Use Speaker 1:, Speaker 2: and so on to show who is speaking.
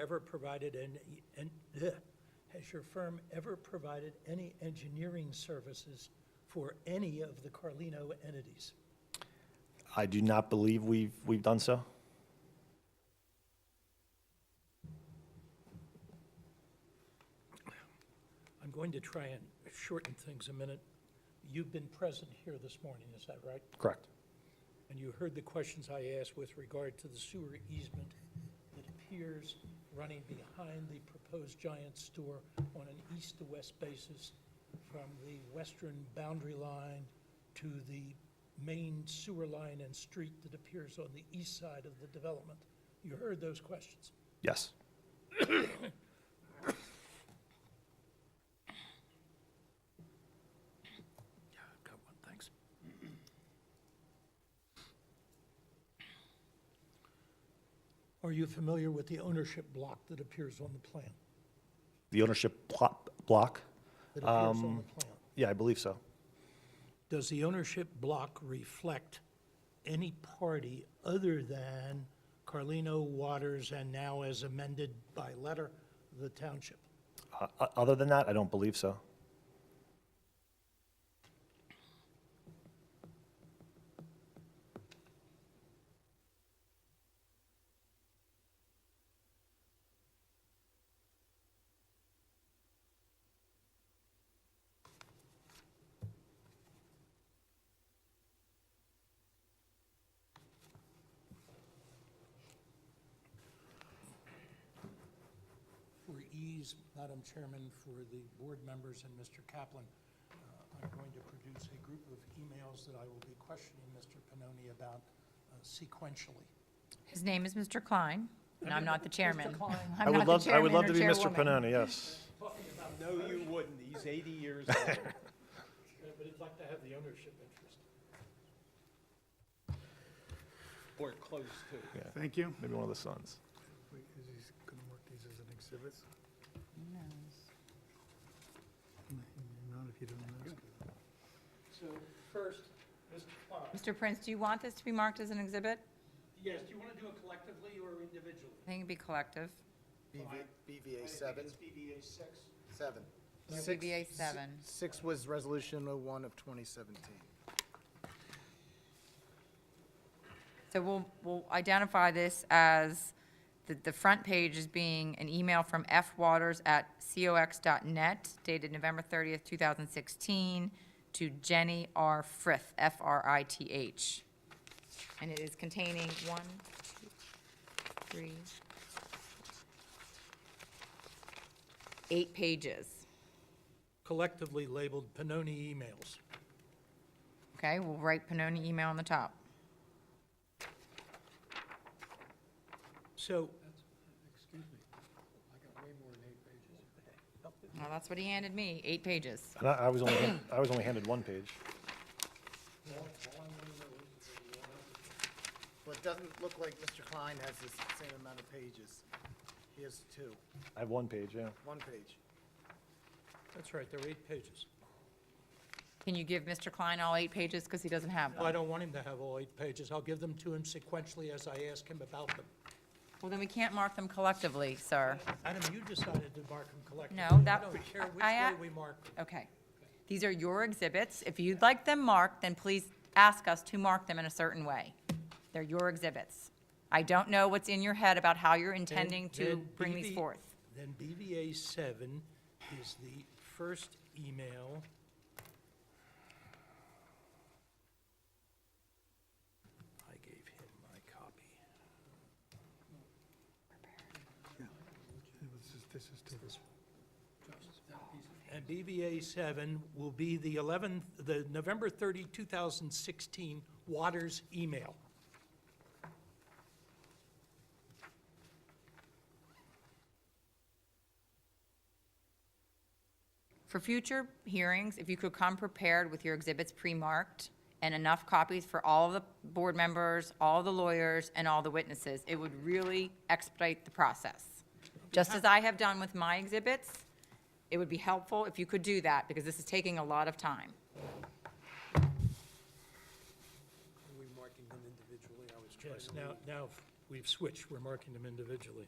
Speaker 1: ever provided an, an, bleh, has your firm ever provided any engineering services for any of the Carlino entities?
Speaker 2: I do not believe we've, we've done so.
Speaker 1: I'm going to try and shorten things a minute. You've been present here this morning, is that right?
Speaker 2: Correct.
Speaker 1: And you heard the questions I asked with regard to the sewer easement that appears running behind the proposed giant store on an east-to-west basis from the western boundary line to the main sewer line and street that appears on the east side of the development. You heard those questions.
Speaker 2: Yes.
Speaker 1: Yeah, I've got one, thanks. Are you familiar with the ownership block that appears on the plan?
Speaker 2: The ownership plot, block?
Speaker 1: That appears on the plan?
Speaker 2: Yeah, I believe so.
Speaker 1: Does the ownership block reflect any party other than Carlino Waters and now as amended by letter, the township?
Speaker 2: Uh, o- Other than that, I don't believe so.
Speaker 1: For ease, Madam Chairman, for the board members and Mr. Kaplan, uh, I'm going to produce a group of emails that I will be questioning Mr. Pannoni about uh, sequentially.
Speaker 3: His name is Mr. Klein, and I'm not the chairman.
Speaker 1: Klein.
Speaker 3: I'm
Speaker 2: I would
Speaker 3: not the
Speaker 2: love, I would
Speaker 3: chairman
Speaker 2: love to
Speaker 3: or
Speaker 2: be Mr.
Speaker 3: chairwoman.
Speaker 2: Panoni, yes.
Speaker 4: No, you wouldn't. He's 80 years old.
Speaker 1: But it's like to have the ownership interest.
Speaker 4: Or close to.
Speaker 5: Thank you.
Speaker 2: Maybe one of the sons.
Speaker 5: Wait, is he gonna work these as an exhibit? Not if you don't ask.
Speaker 1: So first, Mr. Klein.
Speaker 3: Mr. Prince, do you want this to be marked as an exhibit?
Speaker 1: Yes, do you want to do it collectively or individually?
Speaker 3: I think it'd be collective.
Speaker 6: BV BVA seven,
Speaker 1: BDA six.
Speaker 6: seven.
Speaker 3: Yeah,
Speaker 6: Six-
Speaker 3: BVA
Speaker 6: si-
Speaker 3: seven.
Speaker 6: Six was resolution oh one of twenty seventeen.
Speaker 3: So we'll, we'll identify this as, the, the front page as being an email from fwaters@cox.net dated November 30th, 2016, to Jenny R. Frith, F-R-I-T-H. And it is containing one, two, three, eight pages.
Speaker 1: Collectively labeled Pannoni emails.
Speaker 3: Okay, we'll write Pannoni email on the top.
Speaker 1: So,
Speaker 3: Well, that's what he handed me, eight pages.
Speaker 2: And I, I was only, hand- I was only handed one page.
Speaker 6: Well, it doesn't look like Mr. Klein has the s- same amount of pages. He has two,
Speaker 2: I have one page, yeah.
Speaker 6: one page.
Speaker 1: that's right, there are eight pages.
Speaker 3: Can you give Mr. Klein all eight pages, because he doesn't have
Speaker 1: Well, I
Speaker 3: them?
Speaker 1: don't want him to have all eight pages. I'll give them to him sequentially as I ask him about them.
Speaker 3: Well, then we can't mark them collectively, sir.
Speaker 1: Adam, you decided to mark them collectively.
Speaker 3: No, that-
Speaker 1: I don't care which
Speaker 3: I-
Speaker 1: way we mark them.
Speaker 3: Okay. These are your exhibits. If you'd like them marked, then please ask us to mark them in a certain way. They're your exhibits. I don't know what's in your head about how you're intending to
Speaker 1: Then
Speaker 3: bring these
Speaker 1: BV
Speaker 3: forth.
Speaker 1: Then BVA seven is the first email. I gave him my copy.
Speaker 5: This is to this.
Speaker 1: And BVA 7 will be the 11th, the November 30, 2016 Waters email.
Speaker 3: For future hearings, if you could come prepared with your exhibits pre-marked and enough copies for all the board members, all the lawyers, and all the witnesses, it would really expedite the process. Just as I have done with my exhibits, it would be helpful if you could do that, because this is taking a lot of time.
Speaker 1: Yes, now, now we've switched, we're marking them individually.